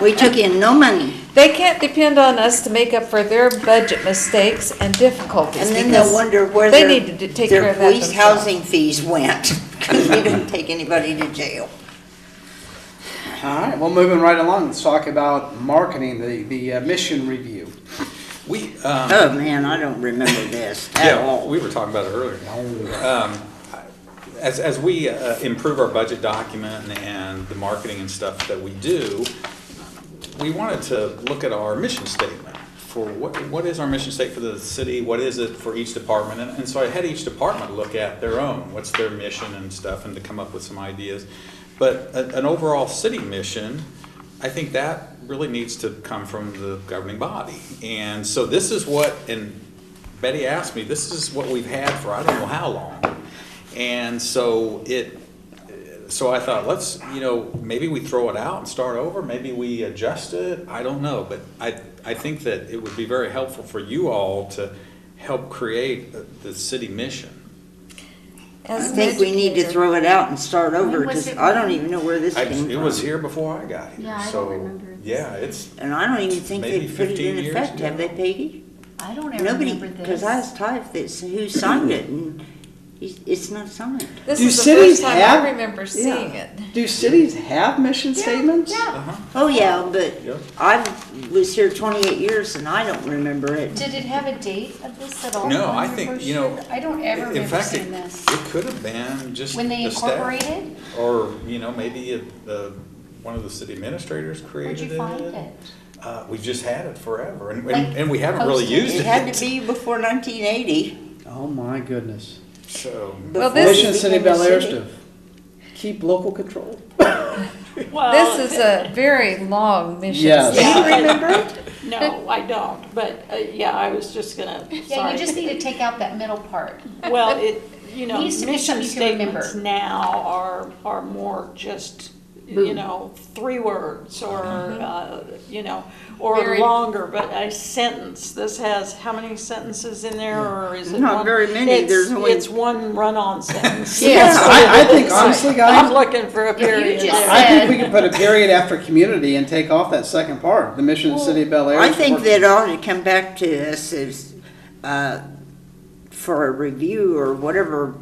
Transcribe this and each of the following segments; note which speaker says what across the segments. Speaker 1: We took in no money.
Speaker 2: They can't depend on us to make up for their budget mistakes and difficulties
Speaker 1: And then they'll
Speaker 2: because
Speaker 1: wonder where
Speaker 2: they
Speaker 1: their-
Speaker 2: need to d- take care of that
Speaker 1: Their police
Speaker 2: themselves.
Speaker 1: housing fees went, because we didn't take anybody to jail.
Speaker 3: All right, well, moving right along, let's talk about marketing, the, the uh, mission review.
Speaker 4: We, um,
Speaker 1: Oh, man, I don't remember this at
Speaker 4: yeah,
Speaker 1: all.
Speaker 4: we were talking about it earlier. Um, I- As, as we uh, improve our budget document and the marketing and stuff that we do, we wanted to look at our mission statement for what, what is our mission statement for the city? What is it for each department? And, and so I had each department look at their own, what's their mission and stuff, and to come up with some ideas. But a- an overall city mission, I think that really needs to come from the governing body. And so this is what, and Betty asked me, this is what we've had for I don't know how long. And so it, so I thought, let's, you know, maybe we throw it out and start over, maybe we adjust it, I don't know, but I, I think that it would be very helpful for you all to help create the- the city mission.
Speaker 1: I
Speaker 2: As an
Speaker 1: think we need to
Speaker 2: educator.
Speaker 1: throw it out and start over,
Speaker 5: was
Speaker 1: because
Speaker 5: it-
Speaker 1: I don't even know where this
Speaker 4: I,
Speaker 1: came from.
Speaker 4: it was here before I got here,
Speaker 5: Yeah, I don't
Speaker 4: so,
Speaker 5: remember this.
Speaker 4: yeah, it's,
Speaker 1: And I don't even think
Speaker 4: Maybe
Speaker 1: they put it
Speaker 4: 15
Speaker 1: in
Speaker 4: years
Speaker 1: effect, have they,
Speaker 4: ago.
Speaker 1: Peggy?
Speaker 5: I don't ever
Speaker 1: Nobody,
Speaker 5: remember this.
Speaker 1: because I asked Ty if this, who signed it, and he- it's not signed.
Speaker 2: This
Speaker 3: Do
Speaker 2: is the
Speaker 3: cities
Speaker 2: first time
Speaker 3: have-
Speaker 2: I remember seeing it.
Speaker 3: Do cities have mission
Speaker 5: Yeah,
Speaker 3: statements?
Speaker 5: Yeah.
Speaker 4: uh-huh,
Speaker 1: Oh, yeah, but
Speaker 4: yeah.
Speaker 1: I was here twenty-eight years and I don't remember it.
Speaker 5: Did it have a date of this at all?
Speaker 4: No, I
Speaker 5: Wonder
Speaker 4: think,
Speaker 5: for
Speaker 4: you know,
Speaker 5: sure. I don't ever
Speaker 4: In
Speaker 5: remember
Speaker 4: fact, it,
Speaker 5: seeing this.
Speaker 4: it could have been just
Speaker 5: When they
Speaker 4: the staff,
Speaker 5: incorporated,
Speaker 4: Or, you know, maybe if the, one of the city administrators
Speaker 5: where'd
Speaker 4: created
Speaker 5: you find it?
Speaker 4: Uh, we've just had it forever, and,
Speaker 5: Like,
Speaker 4: and, and we haven't really
Speaker 5: posted?
Speaker 4: used
Speaker 1: It
Speaker 4: it.
Speaker 1: had to be before nineteen eighty.
Speaker 3: Oh, my goodness.
Speaker 4: So,
Speaker 2: Well, this-
Speaker 3: Mission City Bel Air stuff. Keep local control.
Speaker 5: Oh.
Speaker 6: Well,
Speaker 2: This is a very long mission.
Speaker 3: Yes.
Speaker 2: statement.
Speaker 6: Yeah, but-
Speaker 1: remember
Speaker 6: No, I don't, but, uh, yeah, I was just gonna,
Speaker 5: Yeah, you just
Speaker 6: sorry.
Speaker 5: need to take out that middle part.
Speaker 6: Well, it, you know,
Speaker 5: Needs to be
Speaker 6: mission
Speaker 5: something you can remember.
Speaker 6: statements now are, are more just, you know, three words or,
Speaker 5: Mm-hmm.
Speaker 6: uh, you know, or
Speaker 2: Very-
Speaker 6: longer, but a sentence. This has, how many sentences in there, or is it one?
Speaker 1: Not very many.
Speaker 6: It's-
Speaker 1: There's only-
Speaker 6: It's one run-on sentence.
Speaker 2: Yeah.
Speaker 3: I, I think honestly,
Speaker 6: I'm
Speaker 3: guys,
Speaker 6: looking for a
Speaker 5: you
Speaker 6: period
Speaker 5: just
Speaker 6: there.
Speaker 3: I think we can put a period after community and take off that second part, the Mission City Bel Air.
Speaker 1: I think that uh, ought to come back to us as, uh, for a review or whatever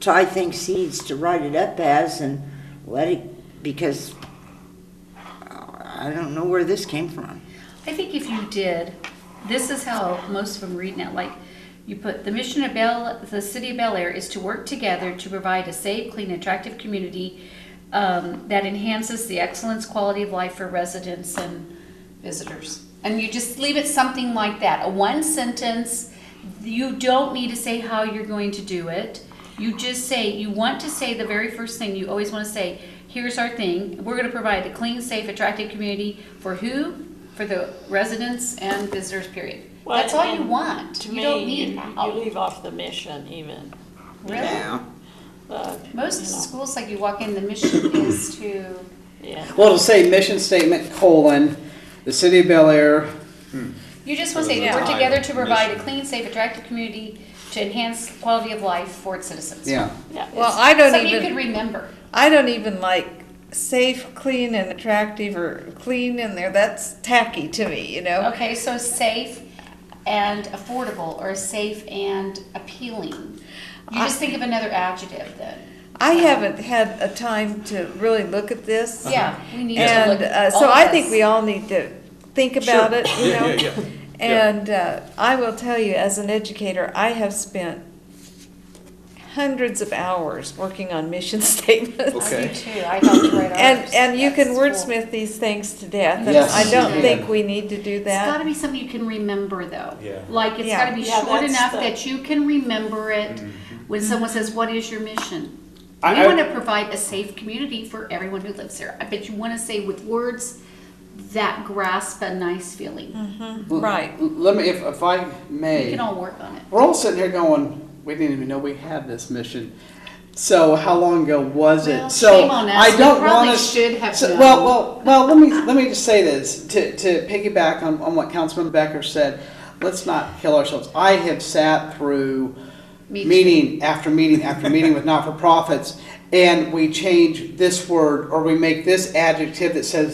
Speaker 1: Ty thinks he needs to write it up as and let it, because uh, I don't know where this came from.
Speaker 5: I think if you did, this is how most of them read now, like, you put, the mission of Bel, the city of Bel Air is to work together to provide a safe, clean, attractive community um, that enhances the excellence quality of life for residents and visitors. And you just leave it something like that, a one sentence, you don't need to say how you're going to do it. You just say, you want to say the very first thing, you always wanna say, here's our thing, we're gonna provide a clean, safe, attractive community for who? For the residents and visitors, period.
Speaker 6: Well,
Speaker 5: That's all you
Speaker 6: and
Speaker 5: want,
Speaker 6: To
Speaker 5: you don't
Speaker 6: me,
Speaker 5: need,
Speaker 6: you you
Speaker 5: oh,
Speaker 6: leave off the mission even.
Speaker 5: really?
Speaker 6: uh,
Speaker 5: Most
Speaker 6: you know,
Speaker 5: schools, like you walk in, the mission is to,
Speaker 6: Yeah.
Speaker 3: Well, it'll say mission statement colon, the City of Bel Air.
Speaker 5: you just wanna say,
Speaker 4: Yeah.
Speaker 5: we're together to
Speaker 4: Mission.
Speaker 5: provide a clean, safe, attractive community to enhance quality of life for its citizens.
Speaker 3: Yeah.
Speaker 6: yeah,
Speaker 2: Well,
Speaker 6: it's-
Speaker 2: I don't
Speaker 5: Something you could
Speaker 2: even,
Speaker 5: remember.
Speaker 2: I don't even like safe, clean and attractive or clean in there. That's tacky to me, you know?
Speaker 5: Okay, so safe and affordable, or safe and appealing. You just think of another adjective then.
Speaker 2: I haven't had a time to really look at this.
Speaker 5: Yeah, we need to look.
Speaker 2: Uh-huh. And uh,
Speaker 5: all
Speaker 2: so
Speaker 5: of
Speaker 2: I
Speaker 5: us.
Speaker 2: think we all need to think about it, you
Speaker 4: yeah,
Speaker 2: know?
Speaker 4: yeah, yeah. Yeah.
Speaker 2: And uh, I will tell you, as an educator, I have spent hundreds of hours working on mission statements.
Speaker 5: I
Speaker 4: Okay.
Speaker 5: do too. I helped write
Speaker 2: And,
Speaker 5: ours
Speaker 2: and you
Speaker 5: at
Speaker 2: can
Speaker 5: school.
Speaker 2: wordsmith these things to death, and
Speaker 3: Yes,
Speaker 2: I don't
Speaker 5: you
Speaker 2: think we need to do
Speaker 5: It's got
Speaker 2: that.
Speaker 5: to be something you can remember, though.
Speaker 4: Yeah.
Speaker 5: Like it's
Speaker 2: Yeah.
Speaker 5: got to be
Speaker 6: Yeah,
Speaker 5: short
Speaker 6: that's
Speaker 5: enough
Speaker 6: the-
Speaker 5: that you can remember it when someone says, "What is your mission?"
Speaker 3: I-
Speaker 5: we
Speaker 3: I-
Speaker 5: want to provide a safe community for everyone who lives there. I bet you want to say with words that grasp a nice feeling.
Speaker 2: Right.
Speaker 3: Let me, if, if I may.
Speaker 5: We can all work on it.
Speaker 3: We're all sitting here going, we didn't even know we had this mission. So how long ago was
Speaker 5: Well,
Speaker 3: it? So
Speaker 5: shame on us.
Speaker 3: I don't
Speaker 5: We probably
Speaker 3: want us.
Speaker 5: should have
Speaker 3: so-
Speaker 5: known.
Speaker 3: Well, well, well. Let me let me just say this to to piggyback on, on what Councilman Becker said. Let's not kill ourselves. I have sat through
Speaker 5: Me too.
Speaker 3: meeting after meeting after meeting with not for profits, and we change this word or we make this adjective that says